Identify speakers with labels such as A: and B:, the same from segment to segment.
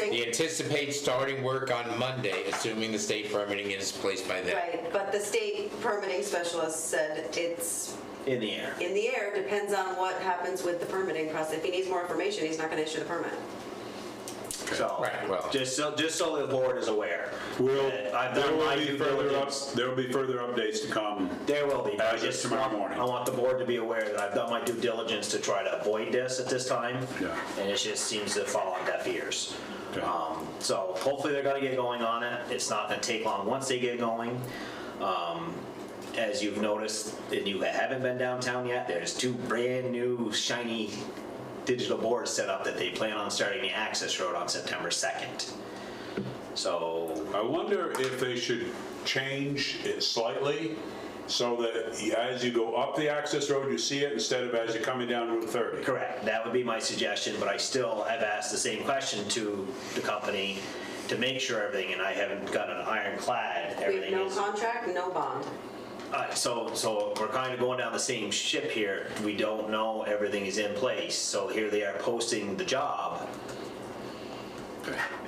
A: They anticipate starting work on Monday, assuming the state permitting is placed by then.
B: Right, but the state permitting specialist said it's
C: in the air.
B: in the air, depends on what happens with the permitting process. If he needs more information, he's not gonna issue the permit.
C: So,
A: Right, well-
C: just so, just so the board is aware.
D: We'll,
C: that I've
D: there
C: done
D: will
C: my
D: be
C: due
D: further up,
C: diligence.
D: there will be further updates to come.
C: There will be. but I
D: As of
C: just
D: Uh, tomorrow
C: want-
D: morning.
C: I want the board to be aware that I've done my due diligence to try to avoid this at this time.
D: Yeah.
C: And it just seems to fall on deaf ears.
D: Okay.
C: Um, So hopefully they're gonna get going on it. It's not gonna take long once they get going. Um, As you've noticed, and you haven't been downtown yet, there's two brand-new shiny digital boards set up that they plan on starting the access road on September 2nd. So
D: I wonder if they should change it slightly so that as you go up the access road, you see it instead of as you're coming down Route 30.
C: Correct, that would be my suggestion, but I still have asked the same question to the company to make sure everything, and I haven't got an ironclad,
B: We have
C: everything
B: no
C: is.
B: contract, no bond.
C: Uh, So, so we're kind of going down the same ship here, we don't know everything is in place, so here they are posting the job.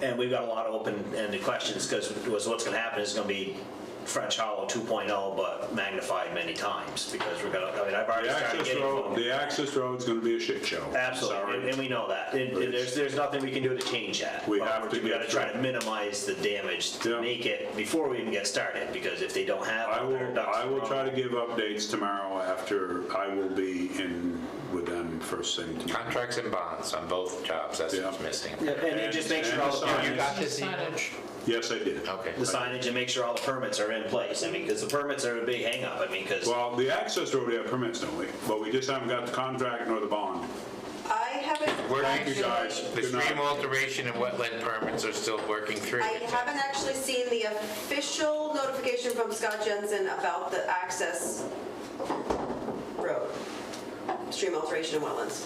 C: And we've got a lot of open-ended questions, because what's gonna happen is gonna be French Hollow 2.0, but magnified many times, because we're gonna, I mean, I've already
D: The
C: started
D: access
C: getting.
D: road,
C: phone-
D: the access road's gonna be a shit show. I'm
C: Absolutely, and-
D: sorry.
C: and we know that. And- and There's, there's nothing we can do to change that.
D: We have to
C: We gotta
D: get
C: try
D: through.
C: to minimize the damage
D: Yeah.
C: to make it before we even get started, because if they don't have.
D: I
C: all their
D: will,
C: ducks
D: I
C: in a
D: will
C: row-
D: try to give updates tomorrow after I will be in with them first thing tomorrow.
A: Contracts and bonds on both jobs, that's what's
D: Yeah.
A: missing.
C: Yeah, And then just make sure all the
D: And- and
A: You
C: permits,
A: got this email?
D: Yes, I did.
A: Okay.
C: the signage and make sure all the permits are in place. I mean, because the permits are a big hangup, I mean, because.
D: Well, the access road, we have permits, don't we? But we just haven't got the contract nor the bond.
B: I haven't.
A: We're-
D: Thank you, guys.
B: actually-
A: The
D: Good night.
A: stream alteration and wetland permits are still working through.
B: I haven't actually seen the official notification from Scott Jensen about the access road, stream alteration and wetlands.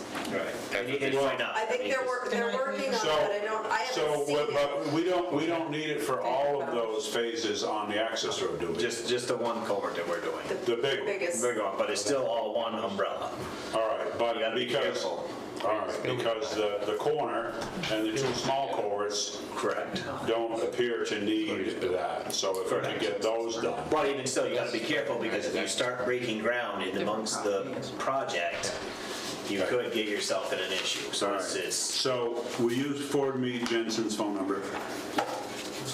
C: And you can find out.
B: I think they're, wor- they're working on it,
D: So-
B: but I don't, I
D: So,
B: haven't seen
D: but-
B: it.
D: but we don't, we don't need it for all of those phases on the access road, do we?
C: Just, just the one culvert that we're doing.
D: The big one.
B: Biggest.
C: We're going, but it's still all one umbrella.
D: All right, but
C: You gotta be
D: because, all
C: careful.
D: right, because the, the corner and the two small culverts
C: Correct.
D: don't appear to need that. So if we can get those done.
C: But even still, you gotta be careful, because if you start breaking ground in amongst the project, you could get yourself in an issue,
D: All
C: so
D: right,
C: it's, it's.
D: so will you forward me Jensen's phone number?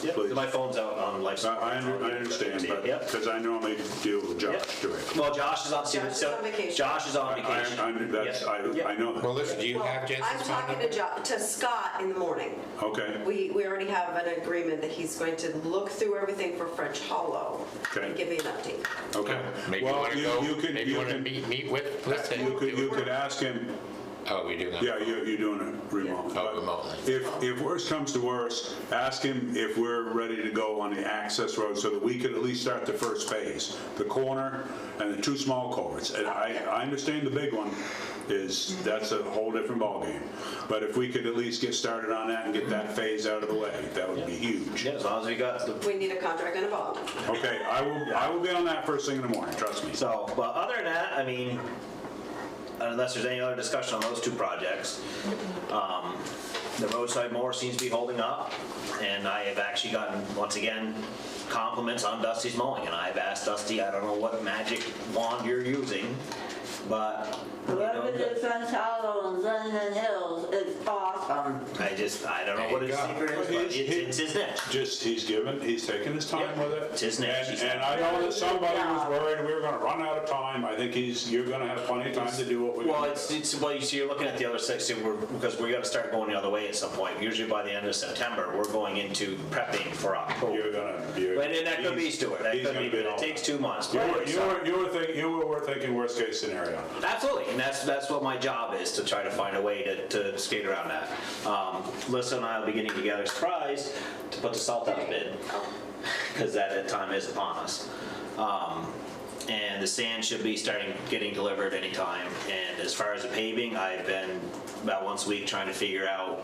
C: Yep,
D: please.
C: My phone's out on life
D: I,
C: support.
D: I under- I understand, but,
C: Yep.
D: because I normally deal with
C: Yep.
D: Josh directly.
C: Well, Josh is on, see,
B: Josh is
C: so-
B: on vacation.
C: Josh is on
D: I,
C: vacation.
D: I, I- that's,
C: Yep,
D: I,
C: yep.
D: I know
A: Well,
D: that.
A: listen, do you have
B: I'm
A: Jensen's phone
B: talking to
A: number?
B: Jo, to Scott in the morning.
D: Okay,
B: We, we already have an agreement that he's going to look through everything for French Hollow and
D: Okay.
B: give me an update.
D: okay.
A: Maybe you
D: Well,
A: want to go,
D: could-
A: maybe you want to
D: can-
A: meet, meet with,
D: You could,
A: listen.
D: you could ask him,
A: Oh, we do now.
D: yeah, you're, you're doing it remotely.
A: Oh,
D: but
A: remotely.
D: If, if worse comes to worse, ask him if we're ready to go on the access road so that we could at least start the first phase, the corner and the two small culverts. And I, I understand the big one is, that's a whole different ballgame. But if we could at least get started on that and get that phase out of the way, that would be huge.
C: Yeah, as long as we got the
B: We need a contract and a bond.
D: Okay, I will, I will be on that first thing in the morning, trust me.
C: So, but other than that, I mean, unless there's any other discussion on those two projects, um, the roadside mower seems to be holding up, and I have actually gotten, once again, compliments on Dusty's mowing, and I've asked Dusty, I don't know what magic wand you're using, but, you
E: Whoever
C: know,
E: did French Hollow and Linden Hills, it's awesome.
C: I just, I don't know what
A: There you
C: his
A: go.
C: secret is, but it's, it's his niche.
D: just, he's given, he's taking his time
C: Yeah.
D: with it.
C: It's his name.
D: And, and I know that somebody was worried we were gonna run out of time. I think he's, you're gonna have plenty of time to do what we.
C: Well, it's, it's, well, you see, you're looking at the other six, so we're, because we gotta start going the other way at some point. Usually by the end of September, we're going into prepping for October.
D: You're gonna, you're.
C: But and that could be
D: he's-
C: Stuart. That
D: he's
C: could
D: gonna
C: be, but
D: all-
C: it takes two months.
D: You
C: but
D: were,
C: it's
D: you
C: not-
D: were, you were thinking, you were were thinking worst case scenario.
C: Absolutely, and that's that's what my job is to try to find a way to, to skate around that. Um, Melissa and I will be getting together, surprise, to put the salt out of bid because that time is upon us. Um, and the sand should be starting getting delivered anytime. And as far as the paving, I've been about once a week trying to figure out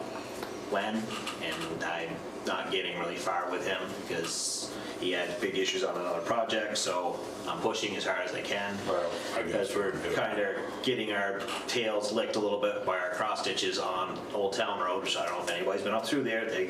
C: when, and I'm not getting really far with him because he had big issues on another project. So I'm pushing as hard as I can
D: Well, I guess
C: as we're
D: we can do
C: kind of getting our tails licked a little bit by our cross stitches on Old Town Road, which I don't know if anybody's been up through there. They